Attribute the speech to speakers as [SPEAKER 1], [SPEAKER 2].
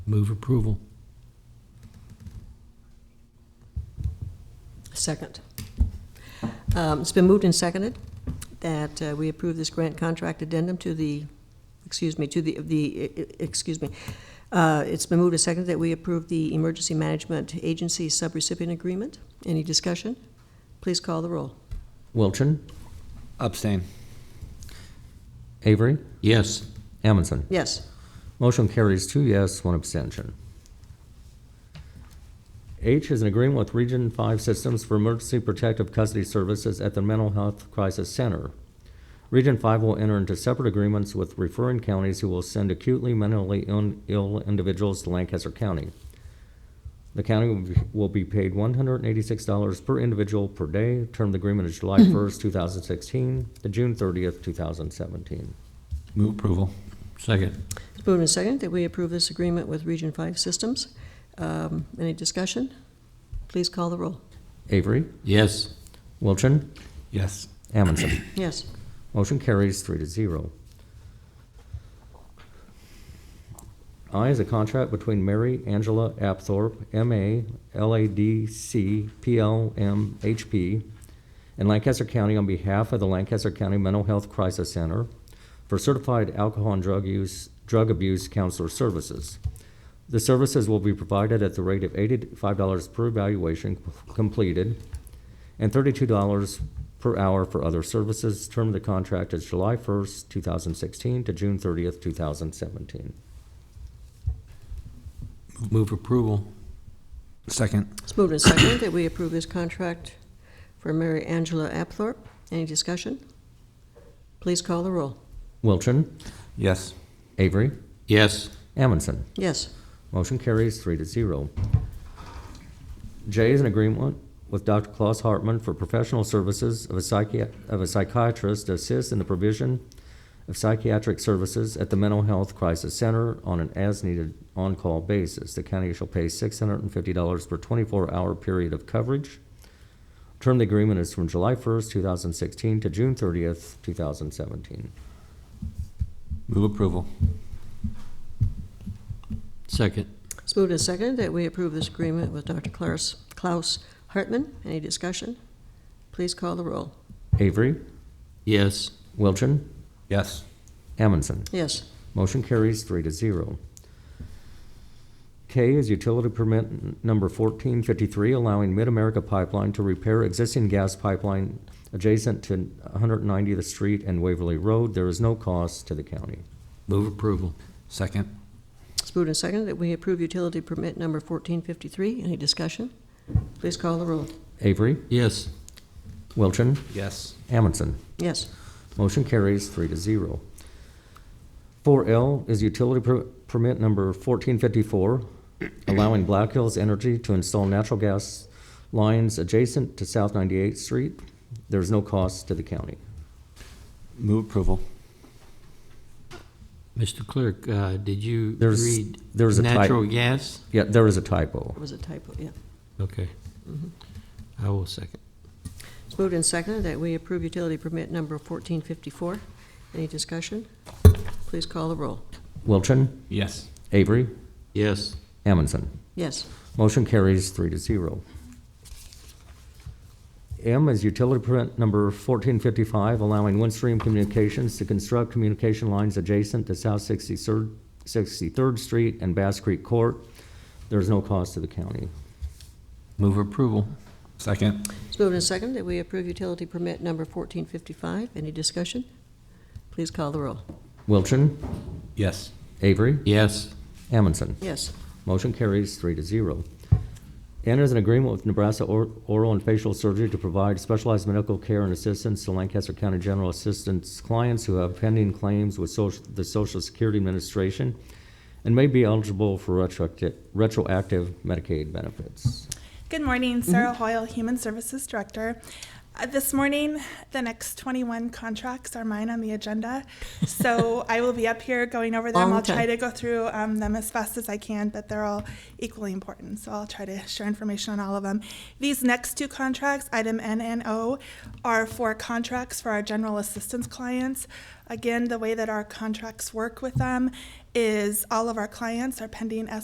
[SPEAKER 1] Move approval.
[SPEAKER 2] Second. Um, It's been moved and seconded that uh, we approve this grant contract addendum to the, excuse me, to the, the, eh, eh, excuse me. Uh, It's been moved and seconded that we approve the Emergency Management Agency subrecipient agreement. Any discussion? Please call the roll.
[SPEAKER 3] Wilchin,
[SPEAKER 4] Abstain.
[SPEAKER 3] Avery,
[SPEAKER 1] Yes.
[SPEAKER 3] Amundson.
[SPEAKER 2] Yes.
[SPEAKER 3] Motion carries two yes, one abstention. H is an agreement with Region 5 Systems for Emergency Protective Custody Services at the Mental Health Crisis Center. Region 5 will enter into separate agreements with referring counties who will send acutely mentally ill- ill individuals to Lancaster County. The county will be- will be paid $186 per individual per day. Term of the agreement is July 1st, 2016 to June 30th, 2017.
[SPEAKER 4] Move approval.
[SPEAKER 1] Second.
[SPEAKER 2] It's moved and seconded that we approve this agreement with Region Five Systems. Um, Any discussion? Please call the roll.
[SPEAKER 3] Avery,
[SPEAKER 1] Yes.
[SPEAKER 3] Wilchin,
[SPEAKER 4] Yes.
[SPEAKER 3] Amundson.
[SPEAKER 2] Yes.
[SPEAKER 3] Motion carries three to zero. I is a contract between Mary Angela Apthorpe, M.A., L.A.D.C., P.L.M.H.P., and Lancaster County on behalf of the Lancaster County Mental Health Crisis Center for certified alcohol and drug use, drug abuse counselor services. The services will be provided at the rate of eighty-five dollars per evaluation completed and thirty-two dollars per hour for other services. Term of the contract is July first, two thousand sixteen to June thirtieth, two thousand seventeen.
[SPEAKER 1] Move approval.
[SPEAKER 4] Second.
[SPEAKER 2] It's moved and seconded that we approve this contract for Mary Angela Apthorp. Any discussion? Please call the roll.
[SPEAKER 3] Wilchin,
[SPEAKER 4] Yes.
[SPEAKER 3] Avery,
[SPEAKER 1] Yes.
[SPEAKER 3] Amundson.
[SPEAKER 2] Yes.
[SPEAKER 3] Motion carries three to zero. J is an agreement with Dr. Klaus Hartman for professional services of a psychiat- of a psychiatrist to assist in the provision of psychiatric services at the Mental Health Crisis Center on an as-needed on-call basis. The county shall pay six hundred and fifty dollars per twenty-four hour period of coverage. Term of the agreement is from July first, two thousand sixteen to June thirtieth, two thousand seventeen.
[SPEAKER 4] Move approval.
[SPEAKER 1] Second.
[SPEAKER 2] It's moved and seconded that we approve this agreement with Dr. Klaus Klaus Hartman. Any discussion? Please call the roll.
[SPEAKER 3] Avery,
[SPEAKER 1] Yes.
[SPEAKER 3] Wilchin,
[SPEAKER 4] Yes.
[SPEAKER 3] Amundson.
[SPEAKER 2] Yes.
[SPEAKER 3] Motion carries three to zero. K is utility permit n- number fourteen fifty-three, allowing Mid-America Pipeline to repair existing gas pipeline adjacent to one hundred ninetieth Street and Waverly Road. There is no cost to the county.
[SPEAKER 1] Move approval.
[SPEAKER 4] Second.
[SPEAKER 2] It's moved and seconded that we approve utility permit number 1453. Any discussion? Please call the roll.
[SPEAKER 3] Avery,
[SPEAKER 1] Yes.
[SPEAKER 3] Wilchin,
[SPEAKER 4] Yes.
[SPEAKER 3] Amundson.
[SPEAKER 2] Yes.
[SPEAKER 3] Motion carries three to zero. Four L is utility per- permit number fourteen fifty-four, allowing Black Hills Energy to install natural gas lines adjacent to South Ninety-Eighth Street. There is no cost to the county.
[SPEAKER 4] Move approval.
[SPEAKER 1] Mr. Clerk, uh, did you
[SPEAKER 3] There's-
[SPEAKER 1] read
[SPEAKER 3] there's a type-
[SPEAKER 1] natural gas?
[SPEAKER 3] Yeah, there is a typo.
[SPEAKER 2] It was a typo, yeah.
[SPEAKER 1] Okay. Mm-hmm. I will second.
[SPEAKER 2] It's moved and seconded that we approve utility permit number 1454. Any discussion? Please call the roll.
[SPEAKER 3] Wilchin,
[SPEAKER 4] Yes.
[SPEAKER 3] Avery,
[SPEAKER 1] Yes.
[SPEAKER 3] Amundson.
[SPEAKER 2] Yes.
[SPEAKER 3] Motion carries three to zero. M is utility permit number fourteen fifty-five, allowing Windstream Communications to construct communication lines adjacent to South Sixty-third, Sixty-third Street and Bass Creek Court. There is no cost to the county.
[SPEAKER 1] Move approval.
[SPEAKER 4] Second.
[SPEAKER 2] It's moved and seconded that we approve utility permit number 1455. Any discussion? Please call the roll.
[SPEAKER 3] Wilchin,
[SPEAKER 4] Yes.
[SPEAKER 3] Avery,
[SPEAKER 1] Yes.
[SPEAKER 3] Amundson.
[SPEAKER 2] Yes.
[SPEAKER 3] Motion carries three to zero. N is an agreement with Nebraska Or- Oral and Facial Surgery to provide specialized medical care and assistance to Lancaster County General Assistance clients who have pending claims with social, the Social Security Administration and may be eligible for retroactive, retroactive Medicaid benefits.
[SPEAKER 5] Good morning, Sarah Hoyle, Human Services Director. Uh, This morning, the next 21 contracts are mine on the agenda, so I will be up here going over them.
[SPEAKER 2] Long
[SPEAKER 5] I'll try
[SPEAKER 2] time.
[SPEAKER 5] to go through um, them as fast as I can, but they're all equally important, so I'll try to share information on all of them. These next two contracts, item N and O, are for contracts for our general assistance clients. Again, the way that our contracts work with them is all of our clients are pending